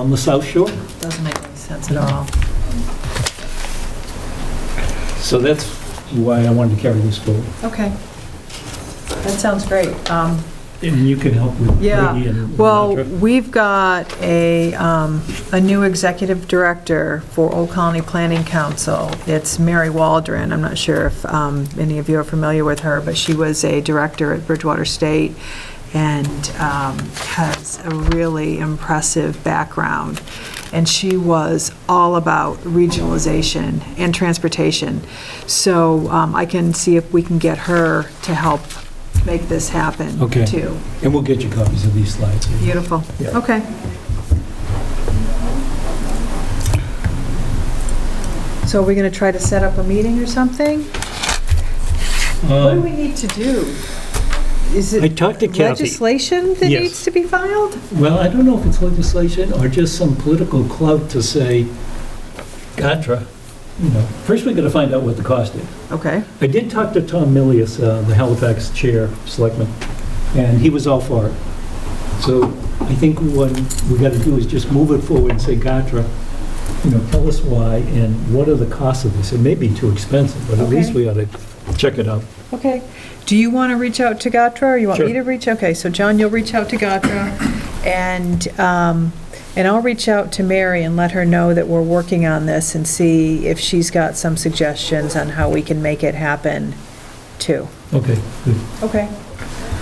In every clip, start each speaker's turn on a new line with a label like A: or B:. A: on the South Shore.
B: Doesn't make any sense at all.
A: So that's why I wanted to carry this forward.
B: Okay. That sounds great. Um,
A: And you can help with
B: Yeah,
A: Brady and...
B: Well, we've got a, um, a new executive director for Old Colony Planning Council. It's Mary Waldron. I'm not sure if um, any of you are familiar with her, but she was a director at Bridgewater State and um, has a really impressive background. And she was all about regionalization and transportation. So um, I can see if we can get her to help make this happen,
A: Okay.
B: too.
A: And we'll get you copies of these slides.
B: Beautiful.
A: Yeah.
B: Okay. So are we going to try to set up a meeting or something? What do
A: Um,
B: we need to do? Is
A: I
B: it
A: talked to Kathy.
B: legislation that
A: Yes.
B: needs to be filed?
A: Well, I don't know if it's legislation or just some political clout to say, Gatra, you know, first we've got to find out what the cost is.
B: Okay,
A: I did talk to Tom Millius, uh, the Halifax Chair, of Selectmen, and he was all for it. So I think what we got to do is just move it forward and say, Gatra, you know, tell us why and what are the costs of this? It may be too expensive, but at
B: Okay.
A: least we ought to check it out.
B: okay. Do you want to reach out to Gatra, or you want me
A: Sure.
B: to reach? Okay, so John, you'll reach out to Gatra, and, um, and I'll reach out to Mary and let her know that we're working on this and see if she's got some suggestions on how we can make it happen, too.
A: Okay, good.
B: Okay.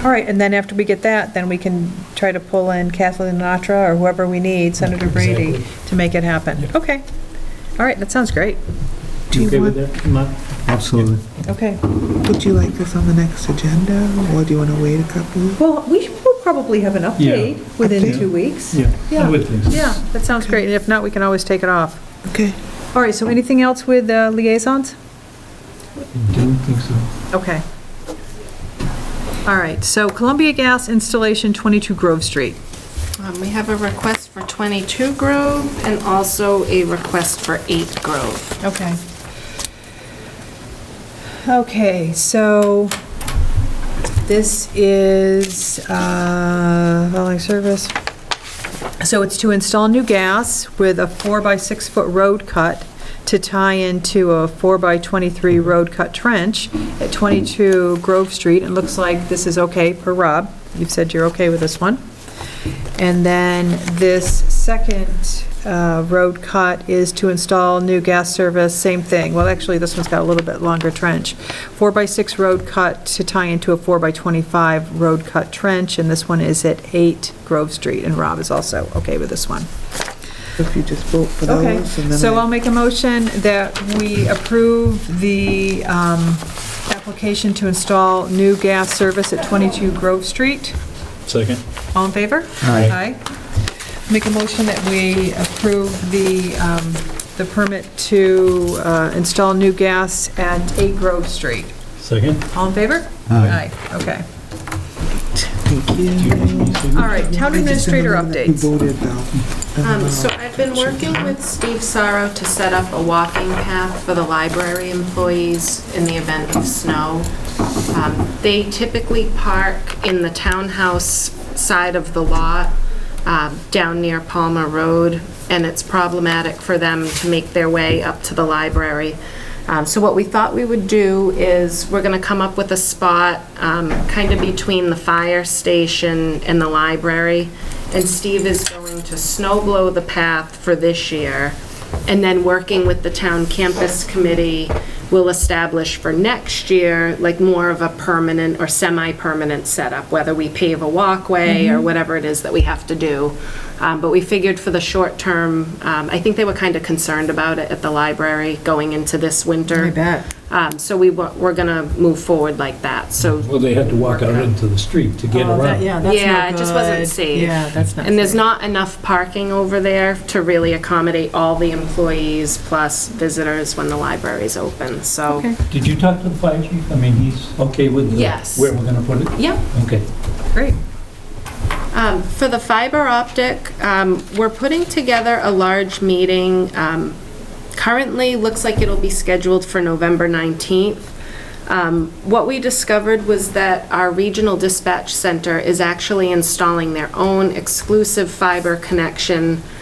B: All right, and then after we get that, then we can try to pull in Kathleen Natra or whoever we need, Senator Brady, to make it happen.
A: Yeah.
B: Okay. All right, that sounds great.
C: Do
A: You
C: you
A: okay with
C: want,
A: that, Mark?
D: Absolutely.
B: Okay.
C: would you like this on the next agenda, or do you want to wait a couple?
B: Well, we will probably have an update within
A: Update.
B: two weeks.
A: Yeah, I would think so.
B: Yeah, that sounds great, and if not, we can always take it off.
C: Okay.
B: All right, so anything else with uh, liaisons?
A: I Don't think so.
B: Okay. All right, so Columbia Gas Installation 22 Grove Street.
E: Um, We have a request for 22 Grove and also a request for 8 Grove.
B: Okay. Okay, so this is uh, following service. So it's to install new gas with a four by six foot road cut to tie into a four by 23 road cut trench at 22 Grove Street. It looks like this is okay per Rob. You've said you're okay with this one. And then this second uh, road cut is to install new gas service, same thing. Well, actually, this one's got a little bit longer trench. Four by six road cut to tie into a four by 25 road cut trench, and this one is at 8 Grove Street, and Rob is also okay with this one.
C: If you just vote for those,
B: Okay,
C: and then
B: so um, I'll
C: I...
B: make a motion that we approve the um, application to install new gas service at 22 Grove Street.
A: Second.
B: All in favor?
D: Aye.
B: Aye. Make a motion that we approve the, um, the permit to uh, install new gas at 8 Grove Street.
A: Second.
B: All in favor?
D: Aye.
B: okay.
C: Thank you.
B: All right, town
C: I just
B: administrator
C: remember that we
B: updates.
C: voted, though.
E: Um, So I've been working with Steve Sorrow to set up a walking path for the library employees in the event of snow. Um, They typically park in the townhouse side of the lot um, down near Palmer Road, and it's problematic for them to make their way up to the library. Um, So what we thought we would do is, we're going to come up with a spot kind of between the fire station and the library, and Steve is going to snow blow the path for this year, and then working with the town campus committee, we'll establish for next year, like more of a permanent or semi-permanent setup, whether we pave a walkway
B: Mm-hmm.
E: or whatever it is that we have to do. Um, But we figured for the short term, um, I think they were kind of concerned about it at the library going into this winter.
B: I bet.
E: Um, So we, wa- we're going to move forward like that, so.
A: Well, they had to walk out into the street to get
B: Oh,
A: around.
E: Yeah, it just wasn't safe.
B: Yeah, that's not
E: And there's
B: safe.
E: not enough parking over there to really accommodate all the employees plus visitors when the library's open, so.
B: Okay.
A: Did you talk to the fire chief? I mean, he's okay with the-
E: Yes.
A: where we're going to put it?
E: Yep.
A: Okay.
B: Great.
E: Um, For the fiber optic, um, we're putting together a large meeting. um, Currently, looks like it'll be scheduled for November 19th. Um, What we discovered was that our regional dispatch center is actually installing their own exclusive fiber connection